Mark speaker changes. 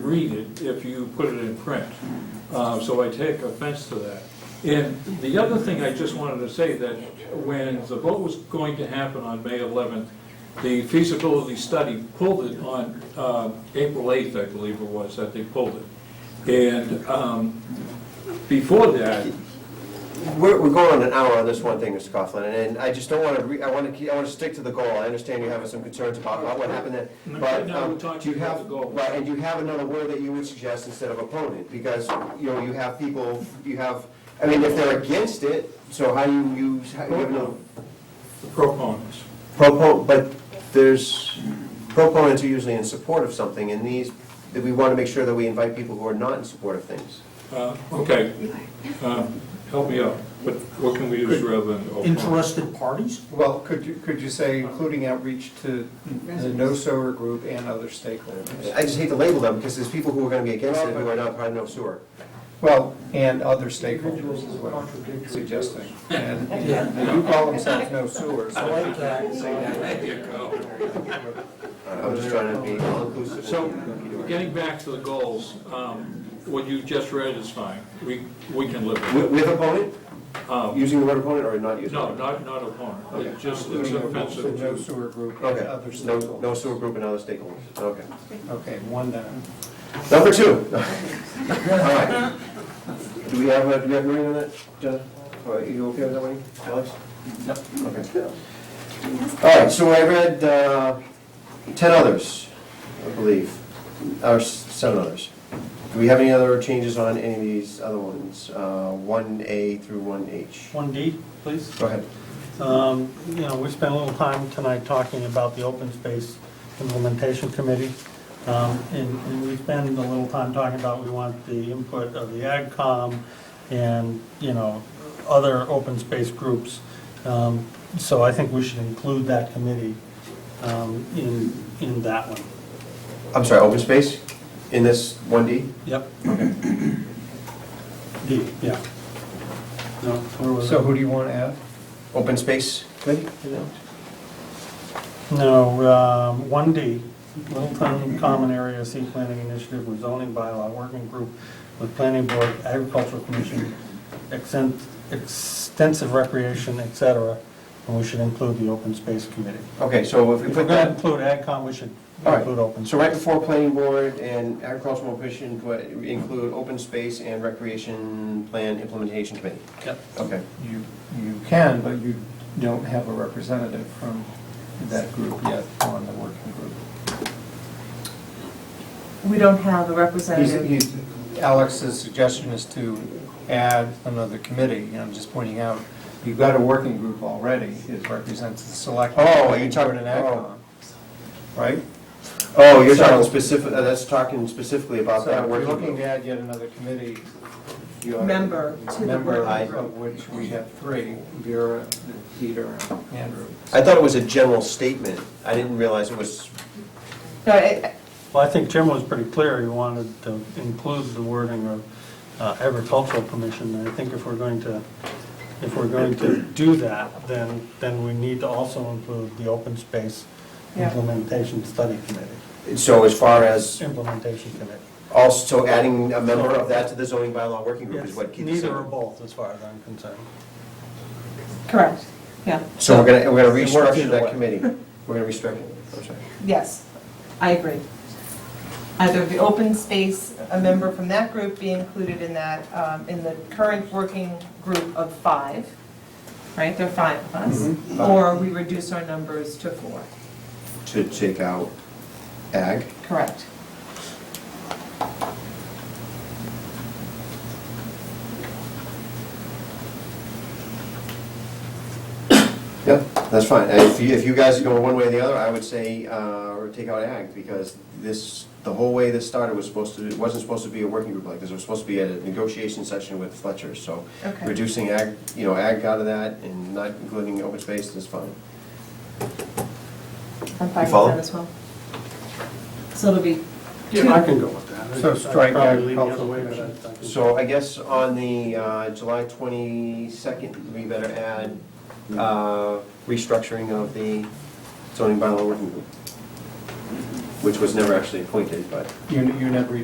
Speaker 1: read it if you put it in print. Uh, So I take offense to that. And the other thing I just wanted to say, that when the vote was going to happen on May 11th, the feasibility study pulled it on um, April 8th, I believe it was, that they pulled it. And um, before that,
Speaker 2: We're, we're going an hour on this one thing, Mr. Coughlin, and I just don't want to, re I want to, keep I want to stick to the goal. I understand you have some concerns about about what happened then,
Speaker 1: No,
Speaker 2: but
Speaker 1: no, we're
Speaker 2: um,
Speaker 1: talking
Speaker 2: do you
Speaker 1: about
Speaker 2: have,
Speaker 1: the goal.
Speaker 2: right, and you have another word that you would suggest instead of opponent, because, you know, you have people, you have, I mean, if they're against it, so how you use, how you have no
Speaker 1: the proponents,
Speaker 2: propo, but there's, proponents are usually in support of something, and these, that we want to make sure that we invite people who are not in support of things.
Speaker 1: uh, okay, uh, help me out, What what can we do oh, rather than... opine?
Speaker 3: interested parties?
Speaker 4: Well, could you, could you say including outreach to the No Sower Group and other stakeholders?
Speaker 2: I just hate to label them, because there's people who are going to be against it who are not part of No Sewer.
Speaker 4: Well, and other stakeholders is what I'm suggesting. And they do call themselves No Sewers.
Speaker 3: I like that.
Speaker 2: I'm just trying to be all-inclusive.
Speaker 1: So, getting back to the goals, um, what you just read is fine. We, we can live with
Speaker 2: With opponent?
Speaker 1: it. Um,
Speaker 2: Using the word opponent or not using?
Speaker 1: No,
Speaker 2: it?
Speaker 1: not, not opponent. It's just, it's
Speaker 4: Including the
Speaker 1: offensive
Speaker 4: No
Speaker 1: to,
Speaker 4: Sewer Group and other
Speaker 2: Okay, no, no
Speaker 4: stakeholders.
Speaker 2: sewer group and other stakeholders, okay.
Speaker 4: Okay, one down.
Speaker 2: Number two. All right. Do we have, a- do we have hearing on that, John? Are you okay with that one, Alex? Okay. All right, so I read uh, 10 others, I believe, or s- seven others. Do we have any other changes on any of these other ones? Uh, 1A through 1H?
Speaker 3: One D, please.
Speaker 2: Go ahead.
Speaker 3: Um, You know, we spent a little time tonight talking about the Open Space Implementation Committee. Um, And and we spend a little time talking about, we want the input of the AgCom and, you know, other open space groups. Um, So I think we should include that committee um, in, in that one.
Speaker 2: I'm sorry, open space in this 1D?
Speaker 3: Yep. D, yeah. No, where was it?
Speaker 4: So who do you want to add?
Speaker 2: Open space committee?
Speaker 3: No, um, 1D, Littleton Common Area Seed Planning Initiative with zoning bylaw working group with planning board, agricultural commission, exen- extensive recreation, et cetera, and we should include the open space committee.
Speaker 2: Okay, so if we
Speaker 3: If we're
Speaker 2: put
Speaker 3: going to
Speaker 2: that,
Speaker 3: include AgCom, we should
Speaker 2: all
Speaker 3: include
Speaker 2: right,
Speaker 3: open.
Speaker 2: so right before planning board and agricultural commission, put- include open space and recreation plan implementation committee?
Speaker 3: Yep.
Speaker 2: Okay,
Speaker 4: You, you can, but you don't have a representative from that group yet on the working group.
Speaker 5: We don't have a
Speaker 4: He's-
Speaker 5: representative.
Speaker 4: he's- Alex's suggestion is to add another committee, and I'm just pointing out, you've got a working group already, it represents the select.
Speaker 2: Oh, you're talking-
Speaker 4: Board and AgCom, Right?
Speaker 2: oh, you're talking
Speaker 4: So-
Speaker 2: specific, uh, that's talking specifically about
Speaker 4: So
Speaker 2: that
Speaker 4: if you're
Speaker 2: working
Speaker 4: looking
Speaker 2: group.
Speaker 4: to add yet another committee. you ought
Speaker 5: Member to the
Speaker 4: Member
Speaker 5: working group.
Speaker 4: of which we have three, Vera, Peter, and Andrew.
Speaker 2: I thought it was a general statement, I didn't realize it was,
Speaker 5: No, I-
Speaker 3: Well, I think Jim was pretty clear, he wanted to include the wording of uh, agricultural commission, and I think if we're going to, if we're going to do that, then, then we need to also include the open space
Speaker 5: Yeah.
Speaker 3: implementation study committee,
Speaker 2: so as far as,
Speaker 3: implementation committee.
Speaker 2: also adding a member of that to the zoning bylaw working group is
Speaker 3: Yes,
Speaker 2: what Keith is
Speaker 3: Neither or
Speaker 2: saying.
Speaker 3: both, as far as I'm concerned.
Speaker 5: Correct, yeah,
Speaker 2: So we're gonna, we're gonna
Speaker 3: It works
Speaker 2: restructure
Speaker 3: either
Speaker 2: that
Speaker 3: way.
Speaker 2: committee, we're gonna restructure, it. I'm sorry.
Speaker 5: yes, I agree. Either the open space, a member from that group be included in that, um, in the current working group of five, right, there are five of us, or we reduce our numbers to four,
Speaker 2: to take out ag.
Speaker 5: correct.
Speaker 2: Yeah, that's fine. And If you, if you guys are going one way or the other, I would say, uh, or take out ag, because this, the whole way this started was supposed to, it wasn't supposed to be a working group like this. It was supposed to be at a negotiation session with Fletcher, so
Speaker 5: Okay.
Speaker 2: reducing ag, you know, ag out of that and not including open space is fine.
Speaker 5: I'm fine with
Speaker 2: follow?
Speaker 5: that as well. So it'll be,
Speaker 3: Yeah, I can go with that.
Speaker 4: So
Speaker 3: I'd
Speaker 4: strike
Speaker 3: probably lean the other
Speaker 4: agricultural
Speaker 3: way, but
Speaker 4: commission.
Speaker 3: I- I can-
Speaker 2: So I guess on the, uh, July twenty-second, we better add, uh, restructuring of the zoning bylaw working group, which was never actually appointed, but.
Speaker 4: You, you never